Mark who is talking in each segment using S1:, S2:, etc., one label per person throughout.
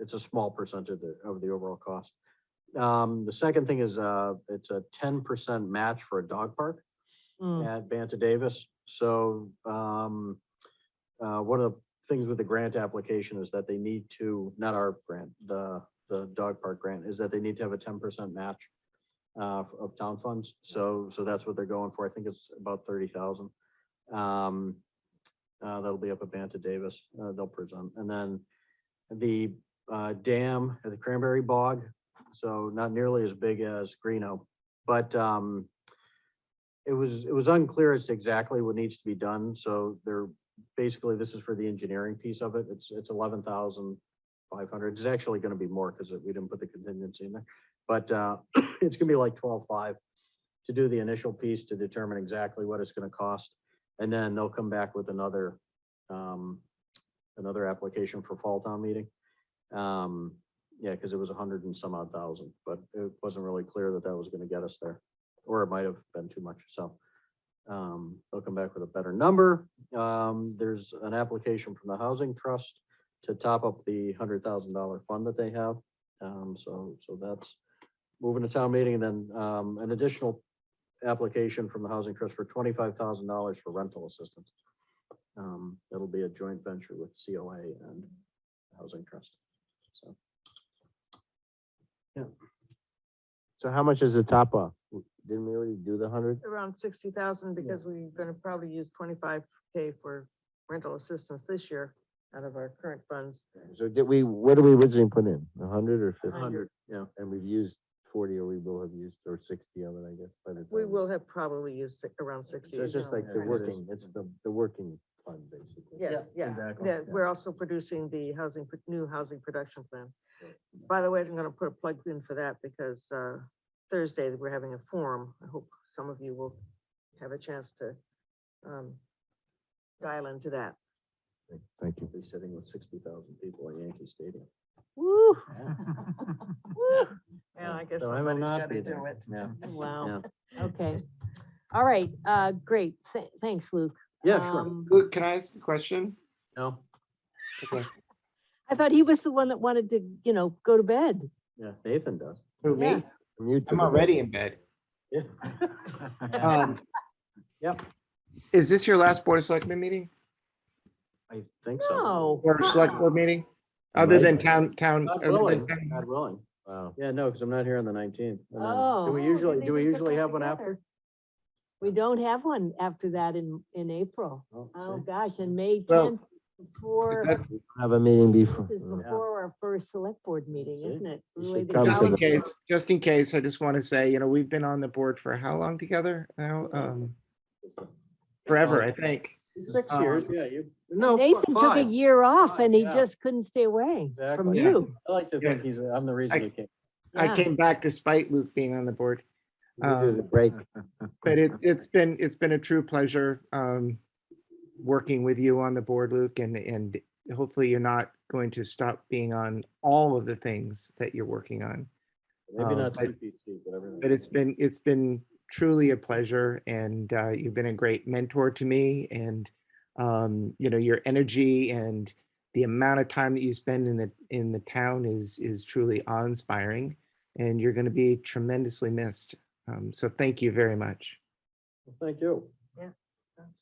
S1: it's a small percentage of the overall cost. Um, the second thing is, uh, it's a ten percent match for a dog park
S2: Mm,
S1: at Banta Davis. So, um, uh, one of the things with the grant application is that they need to, not our grant, the, the dog park grant, is that they need to have a ten percent match uh, f- of town funds. So, so that's what they're going for. I think it's about thirty thousand. Um, uh, that'll be up at Banta Davis. Uh, they'll present. And then the, uh, dam at the Cranberry Bog. So not nearly as big as Greeno, but, um, it was, it was unclear as to exactly what needs to be done, so they're, basically, this is for the engineering piece of it, it's, it's eleven thousand five hundred, it's actually gonna be more, because we didn't put the contingency in there, but, uh, it's gonna be like twelve-five to do the initial piece to determine exactly what it's gonna cost, and then they'll come back with another, um, another application for fall town meeting. Um, yeah, because it was a hundred and some odd thousand, but it wasn't really clear that that was gonna get us there or it might have been too much, so. Um, they'll come back with a better number. Um, there's an application from the Housing Trust to top up the hundred thousand dollar fund that they have. Um, so, so that's moving to town meeting and then, um, an additional application from the Housing Trust for twenty-five thousand dollars for rental assistance. Um, that'll be a joint venture with COA and Housing Trust, so.
S3: So how much is the top off? Didn't we already do the hundred?
S2: Around sixty thousand because we're gonna probably use twenty-five K for rental assistance this year out of our current funds.
S3: So did we, what did we originally put in? A hundred or
S2: A
S4: Uh-huh.
S2: hundred.
S3: fifty?
S1: Yeah,
S3: And we've used forty or we will have used, or sixty of it, I guess. by the
S2: We
S3: time-
S2: will have probably used si- around sixty.
S3: So it's just like the
S2: Yeah.
S3: working, it's the, the working fund, basically.
S2: Yes, yeah,
S1: exactly.
S2: yeah, we're also producing the housing, pro- new housing production plan.
S3: Right.
S2: By the way, I'm gonna put a plug in for that because, uh, Thursday, we're having a forum. I hope some of you will have a chance to, um, dial into that.
S3: Thank you.
S1: be sitting with sixty thousand people at Yankee Stadium.
S2: Woo! Woo! Yeah, I guess
S1: So I will
S2: somebody's
S1: not
S2: gotta
S1: be
S2: do
S1: there.
S2: it.
S1: Yeah.
S4: Wow, okay. All right, uh, great. Th- Thanks, Luke.
S1: Yeah, sure.
S4: Um,
S5: Luke, can I ask a question?
S1: No,
S4: I thought he was the one that wanted to, you know, go to bed.
S1: yeah, Nathan does.
S5: Who, me?
S3: From you to
S5: I'm
S3: the-
S5: already in bed.
S1: Yeah.
S5: Um,
S1: Yep.
S5: Is this your last Board of Selectmen meeting
S1: I think so.
S4: No.
S5: or Select
S4: uh-uh.
S5: Board meeting? Other than
S3: Right.
S5: town, town,
S1: God
S5: other
S1: willing,
S5: than town-
S1: God willing.
S3: Wow.
S1: Yeah, no, because I'm not here on the nineteenth.
S4: Oh.
S1: Do we
S4: Oh,
S1: usually,
S4: they
S1: do we
S4: didn't put
S1: usually
S4: that
S1: have one
S4: together.
S1: after?
S4: We don't have one after that in, in April.
S1: Oh,
S4: Oh,
S1: see,
S4: gosh, and May
S5: Well,
S4: tenth, before,
S5: that's-
S3: Have a meeting before.
S4: this is
S3: uh,
S4: before our first select board meeting,
S1: See?
S4: isn't it?
S3: You
S4: Really
S3: should
S4: the
S3: come to
S5: just in
S3: the-
S4: calendar.
S5: case, just in case, I just want to say, you know, we've been on the board for how long together now? Um, Forever, I think.
S1: Six
S5: Um,
S1: years, uh, yeah, you, no, fi-
S4: Nathan took a
S1: five.
S4: year off
S1: Fine,
S4: and he
S1: yeah.
S4: just couldn't stay away from
S1: Exactly.
S4: you.
S1: I like to think
S5: Yeah.
S1: he's, I'm the reason
S5: I-
S1: he came.
S5: I
S4: Yeah.
S5: came back despite Luke being on the board.
S3: We did a
S5: Um,
S3: break.
S5: But it, it's been, it's been a true pleasure, um, working with you on the board, Luke, and, and hopefully you're not going to stop being on all of the things that you're working on.
S1: Maybe
S5: Um,
S1: not
S5: but-
S1: CPC, but everything.
S5: But it's been, it's been truly a pleasure and, uh, you've been a great mentor to me and, um, you know, your energy and the amount of time that you spend in the, in the town is, is truly awe-inspiring. And you're going to be tremendously missed. Um, so thank you very much.
S1: Well, Thank you. You're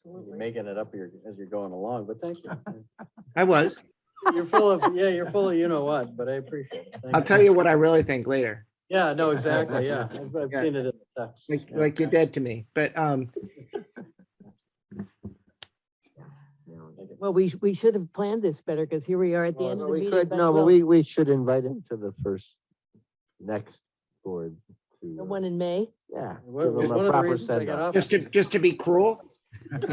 S2: Absolutely.
S1: making it up here as you're going along, but thank you.
S5: I was.
S1: You're full of, yeah, you're full of, you know what, but I appreciate it. Thank
S5: I'll tell you what I really think later,
S1: Yeah, no, exactly, yeah. I've, I've
S5: Yeah.
S1: seen it in the text.
S5: like,
S1: yeah.
S5: like you're dead to me, but, um,
S4: Well, we, sh- we should have planned this better because here we are at the
S3: Well,
S4: end
S3: but
S4: of the
S3: we
S4: meeting.
S3: could-
S4: but
S3: No, but
S4: we'll-
S3: we, we should invite him to the first, next board. to,
S4: The
S3: uh,
S4: one in May?
S3: Yeah.
S1: Well,
S3: give
S1: it's
S3: him a
S1: one of the
S3: proper
S1: reasons I got
S3: send-off.
S1: off.
S5: just to, just to be cruel.
S3: No,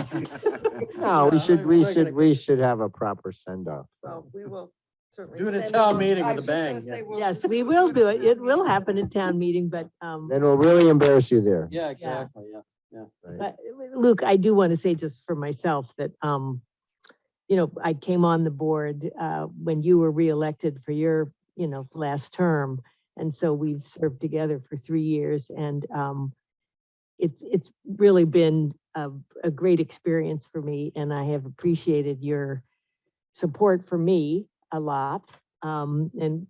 S1: Yeah,
S3: we should,
S1: I'm
S3: we
S1: not gonna-
S3: should, we should have a proper send off.
S2: Well, we will certainly.
S1: Do it at
S2: send
S1: town
S2: them-
S1: meeting
S2: I
S1: with
S2: was
S1: a
S2: just gonna
S1: bang, yeah.
S2: say, we'll-
S4: Yes, we will do it. It will happen at town meeting, but, um,
S3: Then we'll really embarrass you there.
S1: Yeah, exactly, yeah.
S3: right?
S4: but Luke, I do want to say just for myself that, um, you know, I came on the board, uh, when you were reelected for your, you know, last term. And so we've served together for three years and, um, it's, it's really been a, a great experience for me and I have appreciated your support for me a lot. um, and